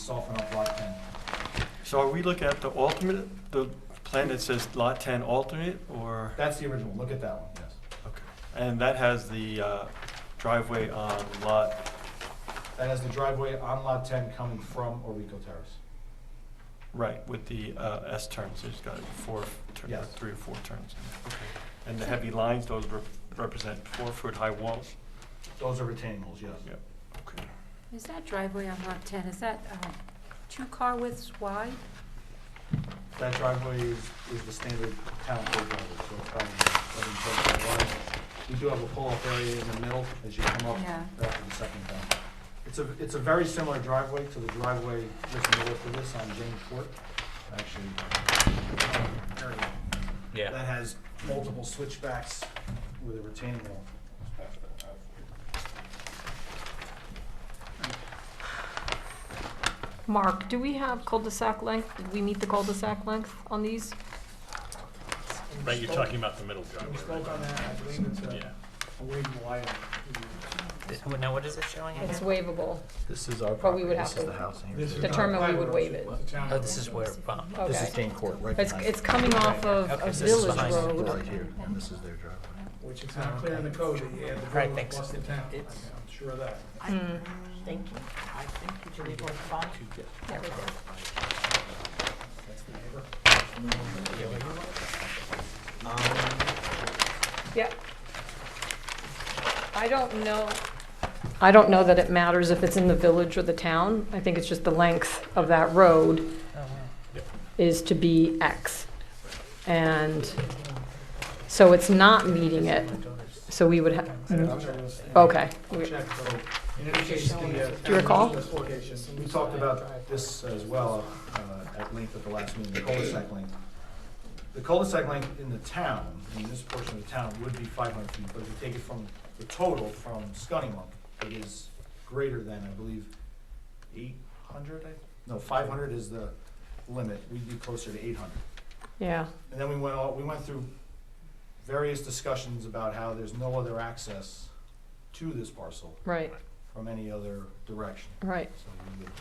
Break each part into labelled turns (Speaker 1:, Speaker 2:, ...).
Speaker 1: soften up lot ten.
Speaker 2: So are we looking at the alternate, the plan that says lot ten alternate, or,
Speaker 1: That's the original, look at that one, yes.
Speaker 2: okay. And that has the uh, driveway on lot,
Speaker 1: That has the driveway on lot ten coming from Orico Terrace.
Speaker 2: right, with the uh, S turns, it's got four, tur-
Speaker 1: Yes.
Speaker 2: three or four turns. in it. And the heavy lines, those rep- represent four-foot-high walls?
Speaker 1: Those are retaining walls, yes.
Speaker 2: Yep, okay.
Speaker 3: Is that driveway on lot 10, is that um, two car widths wide?
Speaker 1: That driveway is, is the standard town code driveway, so it's probably eleven foot by wide. We do have a pull-off area in the middle as you come up
Speaker 3: Yeah.
Speaker 1: after the second down. It's a, it's a very similar driveway to the driveway just north of this on James Court, actually. uh, area That has multiple switchbacks with a retaining wall.
Speaker 4: Mark, do we have cul-de-sac length? Did we meet the cul-de-sac length on these?
Speaker 5: Right, you're talking about the middle
Speaker 6: We
Speaker 5: driveway,
Speaker 6: spoke
Speaker 5: right?
Speaker 6: on that, I believe it's
Speaker 5: Yeah.
Speaker 6: a, a wing wire.
Speaker 7: Now, what is it showing?
Speaker 4: It's waivable.
Speaker 8: This is our
Speaker 4: But
Speaker 8: property,
Speaker 4: we would
Speaker 8: this
Speaker 4: have
Speaker 8: is
Speaker 4: to
Speaker 8: the house. and
Speaker 6: This is
Speaker 8: here's the-
Speaker 6: not
Speaker 4: Determine we
Speaker 6: private
Speaker 4: would
Speaker 6: road,
Speaker 4: waive
Speaker 6: it's
Speaker 4: it.
Speaker 6: a town
Speaker 7: Oh, this is
Speaker 6: road.
Speaker 7: where, wow.
Speaker 8: This
Speaker 4: Okay.
Speaker 8: is Dane Court, right
Speaker 4: It's,
Speaker 8: behind.
Speaker 4: it's coming off of
Speaker 7: Okay,
Speaker 4: a
Speaker 7: so this is
Speaker 4: village
Speaker 7: behind it.
Speaker 4: road.
Speaker 8: Right here, and this is their driveway.
Speaker 6: Which is not clear in the code, that you had the
Speaker 7: Right,
Speaker 6: road
Speaker 7: thanks.
Speaker 6: across the town, I'm
Speaker 7: It's-
Speaker 6: sure of that.
Speaker 4: Mm.
Speaker 7: Thank you. I think, did you leave one for Bob?
Speaker 6: That's the neighbor.
Speaker 4: Yeah. I don't know. I don't know that it matters if it's in the village or the town. I think it's just the length of that road is to be X. And so it's not meeting it, so we would have, okay.
Speaker 6: I'll
Speaker 4: We-
Speaker 6: check, so, in any case, the. uh,
Speaker 4: Do you recall?
Speaker 6: this location-
Speaker 1: We talked about this as well uh, at length at the last meeting, the cul-de-sac length. The cul-de-sac length in the town, in this portion of the town, would be five hundred feet, but if you take it from the total from Scunnamunk, it is greater than, I believe, eight hundred, no, five hundred is the limit, we'd be closer to eight hundred.
Speaker 4: Yeah.
Speaker 1: And then we went all, we went through various discussions about how there's no other access to this parcel
Speaker 4: Right,
Speaker 1: from any other direction.
Speaker 4: right.
Speaker 1: So we would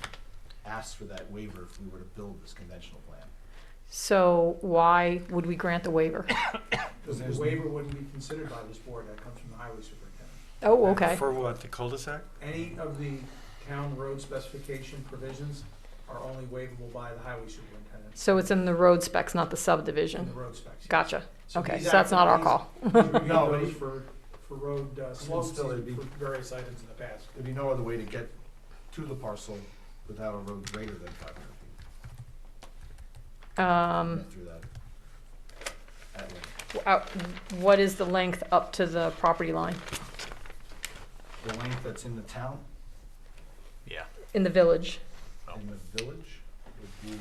Speaker 1: ask for that waiver if we were to build this conventional plan.
Speaker 4: So why would we grant the waiver?
Speaker 6: Because the waiver wouldn't be considered by this board, that comes from the highway superintendent.
Speaker 4: Oh, okay.
Speaker 2: For what, the cul-de-sac?
Speaker 6: Any of the town road specification provisions are only waivable by the highway superintendent
Speaker 4: So it's in the road specs, not the
Speaker 6: in the
Speaker 4: subdivision.
Speaker 6: road specs.
Speaker 4: Gotcha.
Speaker 6: So
Speaker 4: Okay,
Speaker 6: these
Speaker 4: so that's not our
Speaker 6: activities-
Speaker 4: call.
Speaker 6: We reviewed
Speaker 1: No, but
Speaker 6: those
Speaker 1: it-
Speaker 6: for, for road uh, slopes
Speaker 1: still it'd be-
Speaker 6: and for various items in the past.
Speaker 1: There'd be no other way to get to the parcel without a road greater than five hundred feet. We
Speaker 4: Um,
Speaker 1: went Through that. at length.
Speaker 4: out- what is the length up to the property line
Speaker 1: The length that's in the town,
Speaker 5: Yeah.
Speaker 4: in the village
Speaker 1: in the village, would be,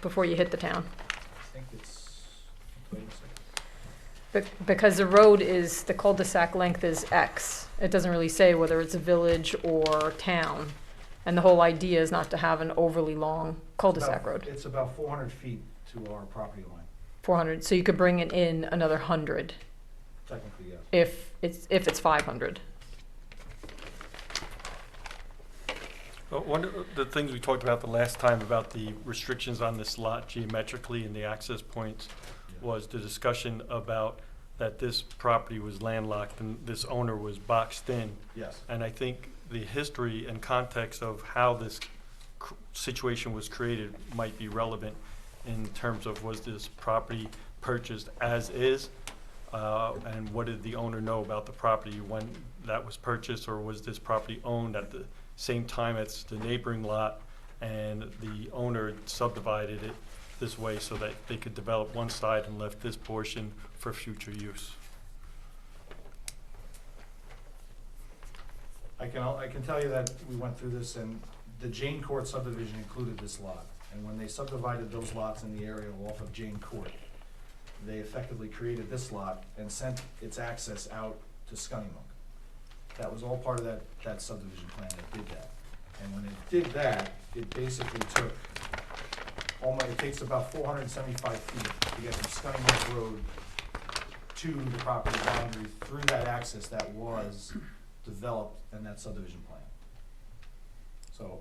Speaker 4: before you hit the town?
Speaker 1: I think it's, wait a second.
Speaker 4: Be- Because the road is, the cul-de-sac length is X. It doesn't really say whether it's a village or town. And the whole idea is not to have an overly long cul-de-sac
Speaker 1: About-
Speaker 4: road,
Speaker 1: It's about four hundred feet to our property line,
Speaker 4: 400. So you could bring it in another 100
Speaker 1: technically, yes.
Speaker 4: if it's, if it's 500.
Speaker 2: Uh, One of the things we talked about the last time about the restrictions on this lot geometrically and the access points was the discussion about that this property was landlocked and this owner was boxed in.
Speaker 1: Yes,
Speaker 2: And I think the history and context of how this cr- situation was created might be relevant in terms of was this property purchased as is? Uh, and what did the owner know about the property when that was purchased? Or was this property owned at the same time as the neighboring lot? And the owner subdivided it this way so that they could develop one side and left this portion for future use?
Speaker 1: I can, I can tell you that we went through this and the Jane Court subdivision included this lot. And when they subdivided those lots in the area off of Jane Court, they effectively created this lot and sent its access out to Scunnamunk. That was all part of that, that subdivision plan that did that. And when it did that, it basically took, almost, it takes about four hundred and seventy-five feet to get from Scunnamunk Road to the property boundary through that access that was developed in that subdivision plan. So